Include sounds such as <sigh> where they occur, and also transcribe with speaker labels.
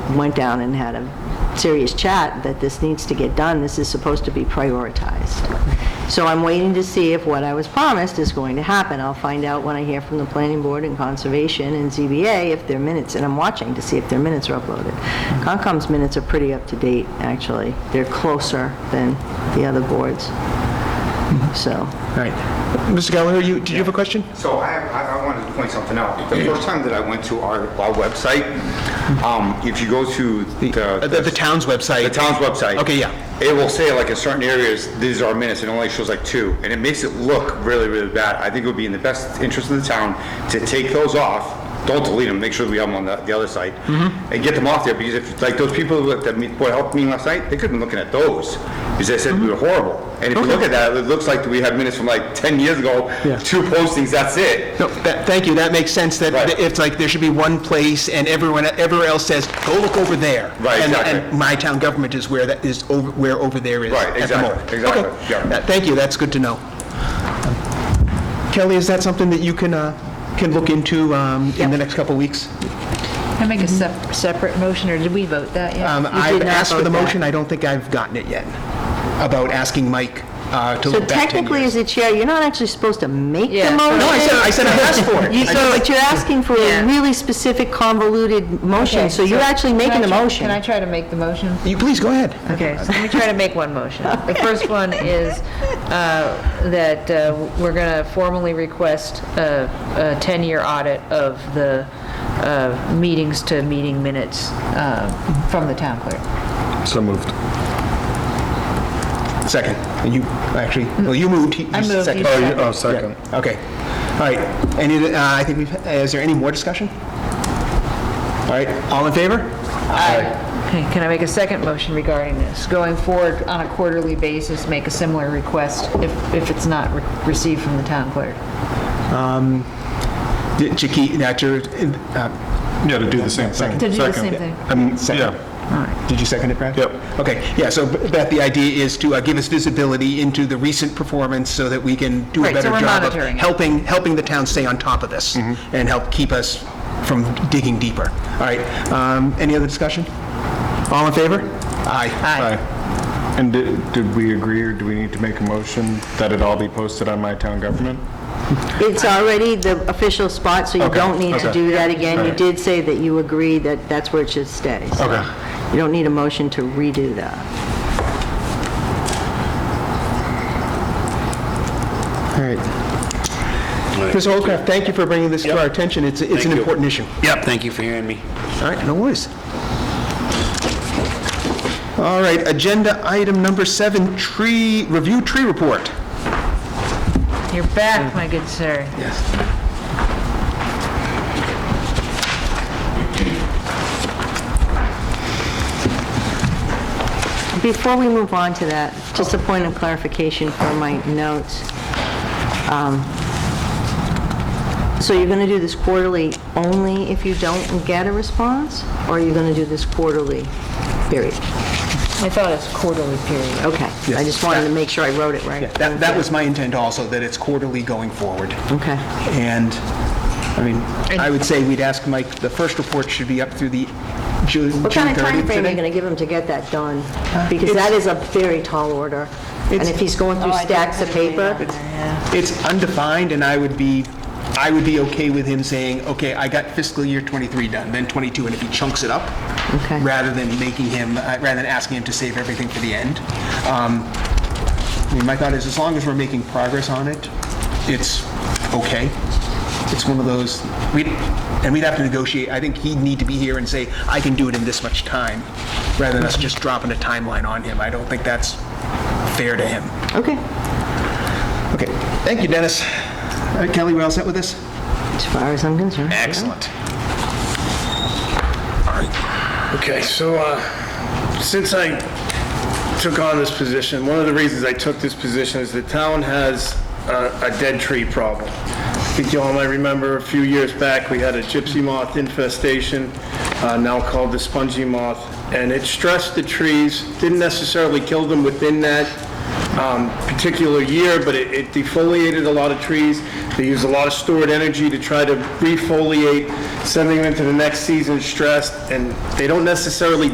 Speaker 1: went down and had a serious chat that this needs to get done, this is supposed to be prioritized. So I'm waiting to see if what I was promised is going to happen. I'll find out when I hear from the planning board and conservation and ZBA if their minutes, and I'm watching to see if their minutes are uploaded. Concom's minutes are pretty up to date, actually. They're closer than the other boards, so.
Speaker 2: All right. Mr. Gallagher, you, did you have a question?
Speaker 3: So I, have- I I wanted to point something out. The first time that I went to our, our website, um, if you go to
Speaker 2: Uh, The the
Speaker 3: the,
Speaker 2: town's website?
Speaker 3: the town's website.
Speaker 2: Okay, yeah.
Speaker 3: It will say like in certain areas, these are minutes, and it only shows like two, and it makes it look really, really bad. I think it would be in the best interest of the town to take those off, don't delete them, make sure we have them on the, the other site,
Speaker 2: Mm-hmm.
Speaker 3: and get them off there, because if, like, those people that that me- what helped me last night, they couldn't be looking at those, because they said we
Speaker 2: Mm-hmm.
Speaker 3: were horrible. And if you look at that, it looks like we have minutes from like ten years ago,
Speaker 2: Yeah.
Speaker 3: two postings, that's it.
Speaker 2: No, that, thank you, that makes sense, that
Speaker 3: Right.
Speaker 2: that it's like, there should be one place, and everyone, everywhere else says, go look over there.
Speaker 3: Right,
Speaker 2: And- And
Speaker 3: exactly.
Speaker 2: my town government is where that is, over where over there is.
Speaker 3: Right,
Speaker 2: at the
Speaker 3: exactly,
Speaker 2: moment.
Speaker 3: exactly,
Speaker 2: Okay.
Speaker 3: yeah.
Speaker 2: That- Thank you, that's good to know. Kelly, is that something that you can, uh, can look into um, in the next couple of weeks?
Speaker 4: Can I make a sep- separate motion, or did we vote that yet?
Speaker 2: Um, I've
Speaker 1: not
Speaker 2: asked for
Speaker 1: vote
Speaker 2: the
Speaker 1: that.
Speaker 2: motion, I don't think I've gotten it yet, about asking Mike uh, to
Speaker 1: So
Speaker 2: look back 10
Speaker 1: technically,
Speaker 2: years.
Speaker 1: as the chair, you're not actually supposed to make the
Speaker 4: Yeah.
Speaker 1: motion.
Speaker 2: No, I said, I said I asked for it.
Speaker 1: You-
Speaker 2: I-
Speaker 1: So, but you're asking for a
Speaker 4: Yeah.
Speaker 1: really specific convoluted motion,
Speaker 4: Okay,
Speaker 1: so you're actually
Speaker 4: can I
Speaker 1: making the
Speaker 4: tr-
Speaker 1: motion.
Speaker 4: Can I try to make the motion?
Speaker 2: You, please, go ahead.
Speaker 4: Okay, so let me try to make one motion. The first one is uh, that uh, we're going to formally request a a 10-year audit of the uh, meetings to meeting minutes uh, from the town clerk.
Speaker 5: So moved.
Speaker 2: Second. And you, actually, well, you moved. he-
Speaker 4: I
Speaker 2: you
Speaker 4: moved,
Speaker 2: seconded.
Speaker 4: you
Speaker 5: Oh, you- oh, second.
Speaker 2: Yeah, Okay. All right. Any, uh, I think we've, is there any more discussion? All right, all in favor?
Speaker 4: Okay, can I make a second motion regarding this? Going forward on a quarterly basis, make a similar request if if it's not re- received from the town clerk.
Speaker 2: Did Chiki, that your, uh,
Speaker 5: Yeah, to do the same thing.
Speaker 4: To do the
Speaker 5: Second.
Speaker 4: same thing.
Speaker 5: Um,
Speaker 2: Second.
Speaker 5: yeah,
Speaker 2: did you second it, Brad?
Speaker 5: Yep.
Speaker 2: Okay, yeah, so Beth, the idea is to uh, give us visibility into the recent performance so that we can do a
Speaker 4: Right, so
Speaker 2: better
Speaker 4: we're
Speaker 2: job of
Speaker 4: monitoring it. Mm-hmm.
Speaker 2: helping, helping the town stay on top of this and help keep us from digging deeper. All right, um, any other discussion? All in favor? Aye.
Speaker 5: aye. And did, did we agree, or do we need to make a motion that it all be posted on My Town Government?
Speaker 1: <laughs> It's already the official spot, so you
Speaker 5: Okay,
Speaker 1: don't need to
Speaker 5: okay.
Speaker 1: do that again. You
Speaker 5: Alright.
Speaker 1: did say that you agree that that's where it should stay. so
Speaker 5: Okay.
Speaker 1: You don't need a motion to redo that.
Speaker 2: All right. Mr. Holcraft, thank you for bringing this to our attention. It's, it's an
Speaker 6: Thank you.
Speaker 2: important issue.
Speaker 6: Yep, thank you for hearing me.
Speaker 2: All right, no worries. All right, agenda item number seven, tree, review tree report.
Speaker 4: You're back, my good sir.
Speaker 1: Before we move on to that, just a point of clarification for my notes. Um, So you're going to do this quarterly only if you don't get a response? Or are you going to do this quarterly, period?
Speaker 4: I thought it's quarterly period.
Speaker 1: Okay. I just wanted to make sure I wrote it right.
Speaker 2: That, that was my intent also, that it's quarterly going forward.
Speaker 1: Okay.
Speaker 2: And, I mean, I would say we'd ask Mike, the first report should be up through the Ju- June 30th.
Speaker 1: What kind of timeframe are you
Speaker 2: today.
Speaker 1: going to give him to get that done? Because that is a very tall order. And if he's going through stacks of paper,
Speaker 2: It's undefined, and I would be, I would be okay with him saying, okay, I got fiscal year '23 done, then '22, and if he chunks it up,
Speaker 1: Okay.
Speaker 2: rather than making him, uh, rather than asking him to save everything for the end. Um, I mean, my thought is, as long as we're making progress on it, it's okay. It's one of those, we, and we'd have to negotiate, I think he'd need to be here and say, I can do it in this much time, rather than us
Speaker 1: Mm-hmm.
Speaker 2: just dropping a timeline on him. I don't think that's fair to him.
Speaker 1: okay,
Speaker 2: Okay, thank you, Dennis. All right, Kelly, we all set with this?
Speaker 1: as far as I'm concerned. yeah.
Speaker 2: Excellent.
Speaker 6: Okay, so uh, since I took on this position, one of the reasons I took this position is the town has uh, a dead tree problem. I think you all might remember a few years back, we had a gypsy moth infestation, uh, now called the spongy moth, and it stressed the trees, didn't necessarily kill them within that um, particular year, but it it defoliated a lot of trees. They used a lot of stored energy to try to refoliate, sending them into the next season stressed, and they don't necessarily